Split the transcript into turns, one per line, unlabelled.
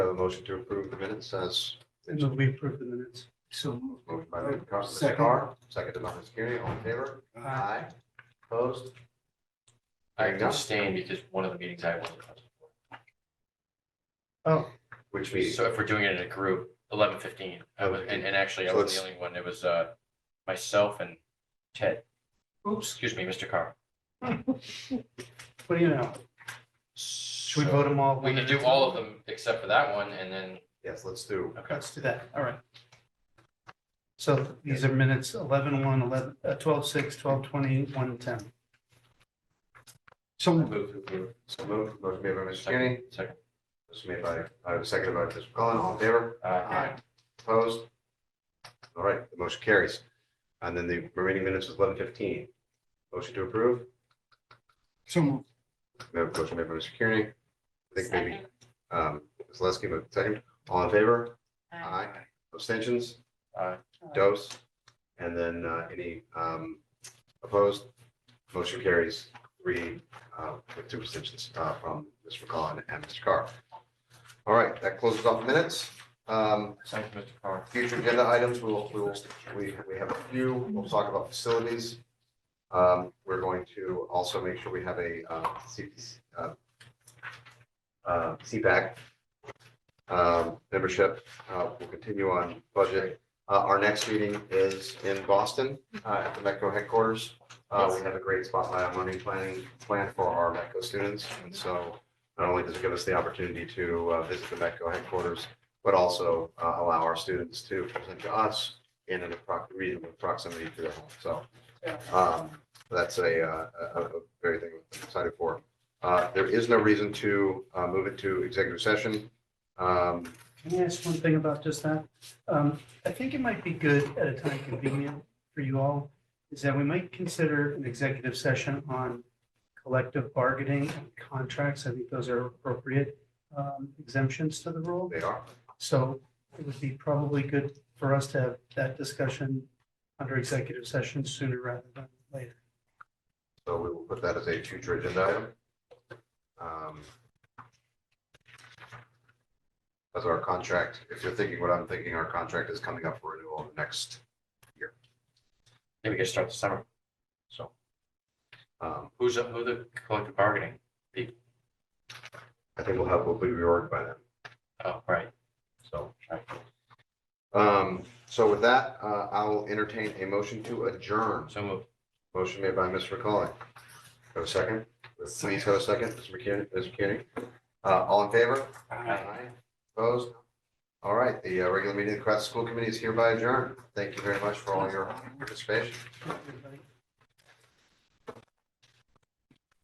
a motion to approve the minutes as
And then we approve the minutes. So.
moved by Mr. Carr, Mr.
Second.
Carr, seconded by Ms. Kearney, all in favor?
Aye.
Opposed?
I abstain because one of the meetings I wasn't. present
Oh,
Which
for.
means,
So if we're doing it in a group, eleven fifteen, I was, and, and actually I
So
was the
it's-
only one, it was, uh, myself and Ted,
oops,
excuse me, Mr. Carr.
what do you know? Should we vote them all?
We
one
can
at
do
a
all of
time?
them except for that one and then,
yes, let's do,
okay,
Let's do that. All right. So these are minutes 11, 1, 11, uh, 12, 6, 12, 20, 1, 10. So
move to approve.
so moved, motion made by Mr. Kearney,
Second.
this made by, uh, seconded by Mr. Cullen, all in favor?
Uh,
Opposed? All right, the motion carries. And then the remaining minutes is eleven fifteen. Motion to approve,
So moved.
No, motion made by Mr. Kearney. I think maybe,
Second.
um, Ms. Leskey, but second, all in favor?
Aye.
Abstentions?
Aye.
Dose? And then uh, any um, opposed? Motion carries three uh, with two abstentions uh, from Mr. McCollum and Mr. Carr. All right, that closes off minutes. Um,
Thank you, Mr. Carr.
Future agenda items, we will, we will, we we have a few, we'll talk about facilities. Um, We're going to also make sure we have a uh, C- uh, uh, CPAC um, membership. Uh, We'll continue on budget. Uh, Our next meeting is in Boston uh, at the MECO headquarters. Uh, We have a great spotlight on learning planning plan for our MECO students. And so not only does it give us the opportunity to uh, visit the MECO headquarters, but also uh, allow our students to present to us in an appro- reasonable proximity to their home. So um, that's a, uh, a, a a very thing I'm excited for. Uh, There is no reason to uh, move it to executive session. Um,
Can I ask one thing about just that? Um, I think it might be good at a time convenient for you all, is that we might consider an executive session on collective bargaining and contracts. I think those are appropriate um, exemptions to the rule.
They are.
So it would be probably good for us to have that discussion under executive session sooner rather than later.
So we will put that as a future agenda item. Um, As our contract, if you're thinking what I'm thinking, our contract is coming up for renewal next,
Maybe we can start the summer.
so. um,
Who's, up? who the collective bargaining?
I think we'll have, we'll be reorged by then,
Oh, right.
so.
Right.
Um, So with that, uh, I will entertain a motion to adjourn.
So move.
Motion made by Mr. McCollum. Have a second? Please have a second, Mr. McKinney, Mr. McKinney. Uh, all in favor? Aye. Opposed? All right, the uh, regular meeting of the Cohasset School Committee is hereby adjourned. Thank you very much for all your participation.
Everybody-